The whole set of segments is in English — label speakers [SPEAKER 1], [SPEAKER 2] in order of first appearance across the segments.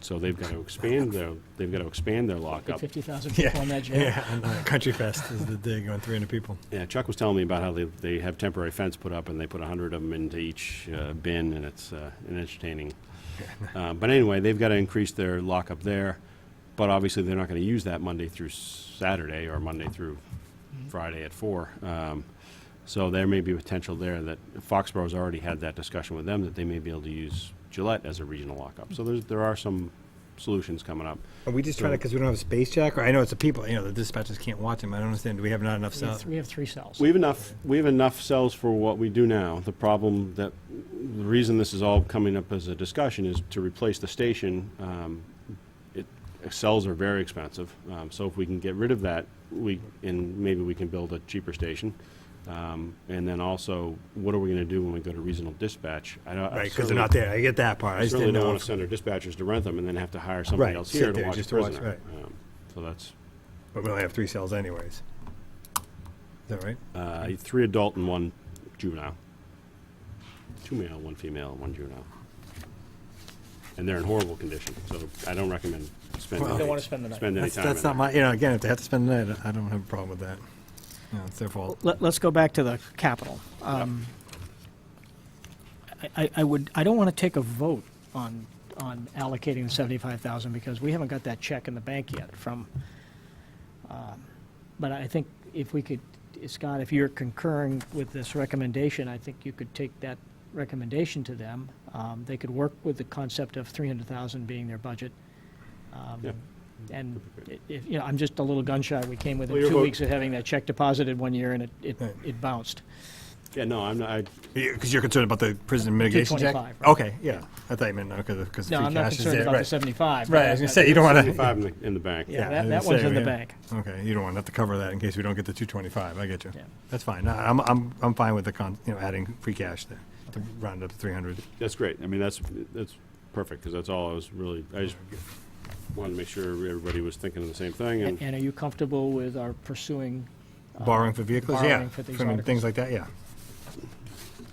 [SPEAKER 1] So they've got to expand their, they've got to expand their lockup.
[SPEAKER 2] 50,000
[SPEAKER 3] Yeah,
[SPEAKER 2] people on that job.
[SPEAKER 3] yeah. and, uh, Country Fest is the day going 300 people.
[SPEAKER 1] Yeah, Chuck was telling me about how they, they have temporary fence put up and they put 100 of them into each uh, bin and it's uh, an entertaining. Uh, But anyway, they've got to increase their lockup there, but obviously they're not going to use that Monday through Saturday or Monday through Friday at four. Um, So there may be potential there that Foxborough's already had that discussion with them that they may be able to use Gillette as a regional lockup. So there's, there are some solutions coming up.
[SPEAKER 3] Are we just trying to, because we don't have a space jack? Or I know it's the people, you know, the dispatchers can't watch them. I don't understand. Do we have not enough
[SPEAKER 2] We have
[SPEAKER 3] sound?
[SPEAKER 2] th- We have three cells.
[SPEAKER 1] We have enough. We have enough cells for what we do now. The problem that the reason this is all coming up as a discussion is to replace the station. Um, it, cells are very expensive, um, so if we can get rid of that, we and maybe we can build a cheaper station. Um, and then also, what are we going to do when we go to regional dispatch? I don't, I
[SPEAKER 3] Right, because they're
[SPEAKER 1] certainly-
[SPEAKER 3] not there. I get that part. I
[SPEAKER 1] I
[SPEAKER 3] just
[SPEAKER 1] certainly
[SPEAKER 3] didn't
[SPEAKER 1] don't
[SPEAKER 3] know.
[SPEAKER 1] want to
[SPEAKER 3] if-
[SPEAKER 1] send our dispatchers to rent them and then have to hire somebody
[SPEAKER 3] Right,
[SPEAKER 1] else
[SPEAKER 3] sit
[SPEAKER 1] here to
[SPEAKER 3] there
[SPEAKER 1] watch
[SPEAKER 3] just
[SPEAKER 1] a
[SPEAKER 3] to watch,
[SPEAKER 1] prisoner. Um, so that's
[SPEAKER 3] But we only have three cells anyways. Is that right?
[SPEAKER 1] Uh, three adult and one juvenile. Two male, one female, one juvenile. And they're in horrible condition, so I don't recommend spending.
[SPEAKER 3] Well, You
[SPEAKER 2] don't wanna spend the night.
[SPEAKER 1] Spend any
[SPEAKER 3] That's,
[SPEAKER 1] time in
[SPEAKER 3] that's not
[SPEAKER 1] there.
[SPEAKER 3] my, you know, again, if they have to spend the night, I don't have a problem with that. You know, it's their fault.
[SPEAKER 2] Let, us go back to the capital. Um, I- I, I would, I don't want to take a vote on, on allocating the 75,000 because we haven't got that check in the bank yet from, um, but I think if we could, Scott, if you're concurring with this recommendation, I think you could take that recommendation to them. Um, They could work with the concept of 300,000 being their budget. Um,
[SPEAKER 1] Yeah.
[SPEAKER 2] And, i- if, you know, I'm just a little gun shy. We came within
[SPEAKER 1] Well, your
[SPEAKER 2] two
[SPEAKER 1] vote-
[SPEAKER 2] weeks of having that check deposited one year and it, it,
[SPEAKER 3] Right.
[SPEAKER 2] it bounced.
[SPEAKER 1] Yeah, no, I'm not, I,
[SPEAKER 3] Because you're concerned about the prison mitigation check?
[SPEAKER 2] 225, right.
[SPEAKER 3] Okay, yeah. I thought you meant, because, because the
[SPEAKER 2] No,
[SPEAKER 3] free
[SPEAKER 2] I'm not
[SPEAKER 3] cash is
[SPEAKER 2] concerned
[SPEAKER 3] there.
[SPEAKER 2] about the
[SPEAKER 3] Right,
[SPEAKER 2] 75.
[SPEAKER 3] Right, I was going to say, you don't want to,
[SPEAKER 1] five in the, in the bank.
[SPEAKER 2] Yeah,
[SPEAKER 3] I
[SPEAKER 2] that, that
[SPEAKER 3] was gonna
[SPEAKER 2] one's
[SPEAKER 3] say,
[SPEAKER 2] in the
[SPEAKER 3] yeah.
[SPEAKER 2] bank.
[SPEAKER 3] Okay, you don't want to have to cover that in case we don't get the two twenty-five, I get you.
[SPEAKER 2] Yeah.
[SPEAKER 3] That's fine, No, I'm, I'm, I'm fine with the con, you know, adding free cash there, to round up to three hundred.
[SPEAKER 1] That's great, I mean, that's, that's perfect, because that's all I was really, I just wanted to make sure everybody was thinking of the same thing,
[SPEAKER 2] And
[SPEAKER 1] and
[SPEAKER 2] and are you comfortable with our pursuing? uh,
[SPEAKER 3] Borrowing for vehicles, yeah,
[SPEAKER 2] borrowing for these
[SPEAKER 3] I mean,
[SPEAKER 2] articles.
[SPEAKER 3] things like that, yeah.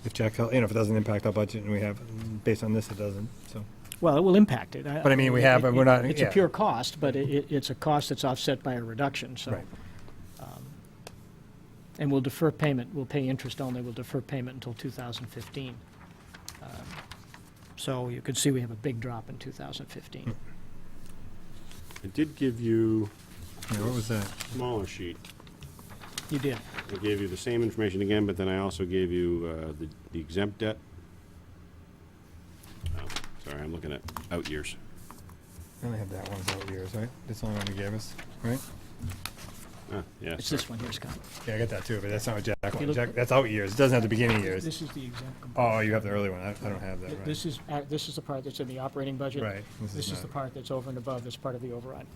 [SPEAKER 3] If Jack, hel- you know, if it doesn't impact our budget and we have, based on this, it doesn't, so.
[SPEAKER 2] Well, it will impact it.
[SPEAKER 3] But I mean, we
[SPEAKER 2] it-
[SPEAKER 3] have, but we're not-
[SPEAKER 2] It's a
[SPEAKER 3] yeah.
[SPEAKER 2] pure cost, but it- it, it's a cost that's offset by a reduction, so.
[SPEAKER 3] Right.
[SPEAKER 2] um, And we'll defer payment, we'll pay interest only, we'll defer payment until 2015. Um, So you can see we have a big drop in
[SPEAKER 3] Hmm.
[SPEAKER 2] 2015.
[SPEAKER 1] I did give you
[SPEAKER 3] Yeah, what was that?
[SPEAKER 1] a smaller sheet.
[SPEAKER 2] You did.
[SPEAKER 1] I gave you the same information again, but then I also gave you uh, the the exempt debt. Oh, Sorry, I'm looking at out years.
[SPEAKER 3] I only have that one for years, right? That's the only one you gave us, right?
[SPEAKER 1] Ah, Yeah,
[SPEAKER 2] It's
[SPEAKER 1] sorry.
[SPEAKER 2] this one here, Scott.
[SPEAKER 3] Yeah, I got that too, but that's not what Jack
[SPEAKER 2] you
[SPEAKER 3] wanted.
[SPEAKER 2] look-
[SPEAKER 3] Jack, that's out years. It doesn't have the beginning years.
[SPEAKER 2] This is the exempt
[SPEAKER 3] Oh, you have the early one. I, I don't have that, right?
[SPEAKER 2] This is, uh, this is the part that's in the operating budget.
[SPEAKER 3] Right, this is
[SPEAKER 2] This is
[SPEAKER 3] not-
[SPEAKER 2] the part that's over and above, that's part of the override.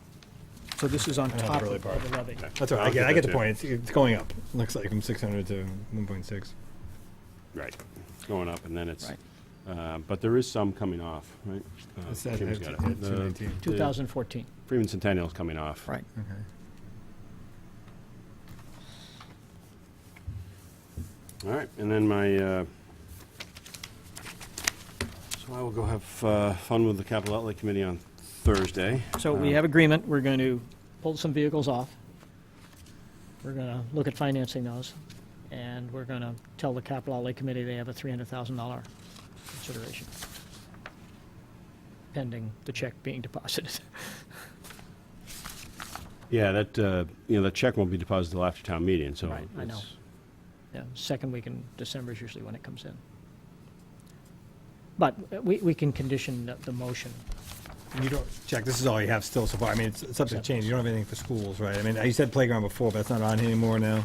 [SPEAKER 2] So this is on
[SPEAKER 3] have the
[SPEAKER 2] top
[SPEAKER 3] early
[SPEAKER 2] of
[SPEAKER 3] part.
[SPEAKER 2] of the levy.
[SPEAKER 3] That's all right.
[SPEAKER 1] I'll
[SPEAKER 3] I get,
[SPEAKER 1] get
[SPEAKER 3] I
[SPEAKER 1] that
[SPEAKER 3] get the
[SPEAKER 1] too.
[SPEAKER 3] point. It's, it's going up. Looks like from 600 to 1.6.
[SPEAKER 1] Right, It's going up, and then it's,
[SPEAKER 2] Right.
[SPEAKER 1] uh, but there is some coming off, right? Uh,
[SPEAKER 3] It's at,
[SPEAKER 1] Kim's
[SPEAKER 3] at,
[SPEAKER 1] got
[SPEAKER 3] at
[SPEAKER 1] it. The-
[SPEAKER 3] 219.
[SPEAKER 2] 2014.
[SPEAKER 1] Freeman Centennial's coming off.
[SPEAKER 2] Right.
[SPEAKER 3] Okay.
[SPEAKER 1] All right, and then my, uh, so I will go have uh, fun with the Capital Outlay Committee on Thursday.
[SPEAKER 2] So we
[SPEAKER 1] Uh,
[SPEAKER 2] have agreement, we're going to pull some vehicles off. We're going to look at financing those, and we're going to tell the capital outlay committee they have a $300,000 consideration, pending the check being deposited.
[SPEAKER 1] Yeah, that, uh, you know, the check won't be deposited till after town meeting, so.
[SPEAKER 2] Right, I know.
[SPEAKER 1] it's-
[SPEAKER 2] Yeah, second week in December is usually when it comes in. But uh, we, we can condition the- the motion.
[SPEAKER 3] And you don't, Jack, this is all you have still so far. I mean, it's, it's subject change. You don't have anything for schools, right? I mean, you said playground before, but that's not on here anymore now.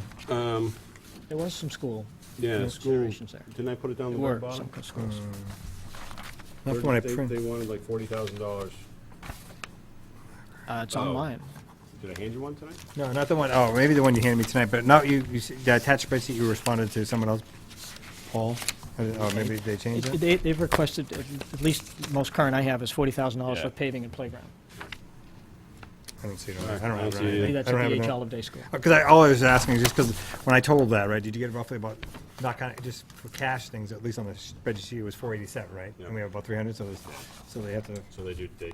[SPEAKER 2] There was some school,
[SPEAKER 1] Yeah,
[SPEAKER 2] No
[SPEAKER 1] school,
[SPEAKER 2] considerations there.
[SPEAKER 1] didn't I put it down
[SPEAKER 2] there
[SPEAKER 1] the very
[SPEAKER 2] were
[SPEAKER 1] bottom?
[SPEAKER 2] some co- schools.
[SPEAKER 3] Not from what I print.
[SPEAKER 1] wanted like forty thousand dollars.
[SPEAKER 2] Uh, It's
[SPEAKER 1] Oh.
[SPEAKER 2] online.
[SPEAKER 1] Did I hand you one tonight?
[SPEAKER 3] No, not the one, oh, maybe the one you handed me tonight, but no, you, you, s- the attached spreadsheet you responded to, someone else, Paul? Oh, maybe they changed
[SPEAKER 2] It-
[SPEAKER 3] it?
[SPEAKER 2] They, they've requested, at at least the most current I have is $40,000
[SPEAKER 1] Yeah.
[SPEAKER 2] for paving and playground.
[SPEAKER 3] I don't see it. on
[SPEAKER 1] Alright,
[SPEAKER 3] there. I don't
[SPEAKER 1] I
[SPEAKER 3] have
[SPEAKER 1] see
[SPEAKER 3] it.
[SPEAKER 1] it either.
[SPEAKER 3] on
[SPEAKER 2] Maybe
[SPEAKER 3] anything.
[SPEAKER 2] that's
[SPEAKER 3] I don't
[SPEAKER 2] at
[SPEAKER 3] have
[SPEAKER 2] the
[SPEAKER 3] it
[SPEAKER 2] H.
[SPEAKER 3] on-
[SPEAKER 2] Olive Day School.
[SPEAKER 3] Because Uh, I, all I was asking is just because when I totaled that, right, did you get roughly about, not kind of, just for cash things, at least on the spreadsheet, it was four eighty-seven, right?
[SPEAKER 1] Yeah.
[SPEAKER 3] And we have about three hundred, so, there's- so they have to
[SPEAKER 1] So they do, they